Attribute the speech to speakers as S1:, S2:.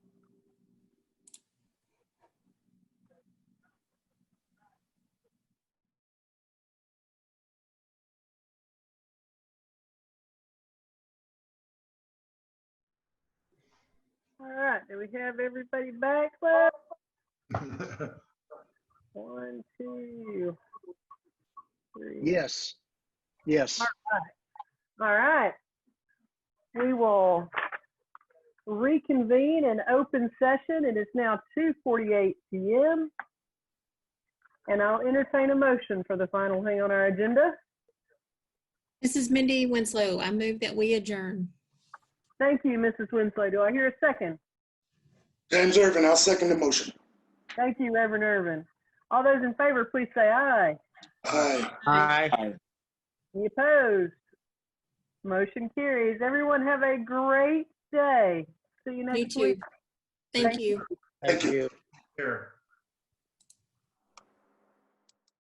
S1: All right, do we have everybody back? love? One, two, three.
S2: Yes, yes.
S1: All right. We will reconvene in open session. It is now 2:48 PM. And I'll entertain a motion for the final thing on our agenda.
S3: This is Mindy Winslow. I move that we adjourn.
S1: Thank you, Mrs. Winslow. Do I hear a second?
S2: James Irvin, I'll second the motion.
S1: Thank you, Reverend Irvin. All those in favor, please say aye.
S2: Aye.
S1: Any opposed? Motion carries. Everyone have a great day. See you
S3: Me
S1: next
S3: too.
S1: week.
S3: Thank you.
S2: Thank you.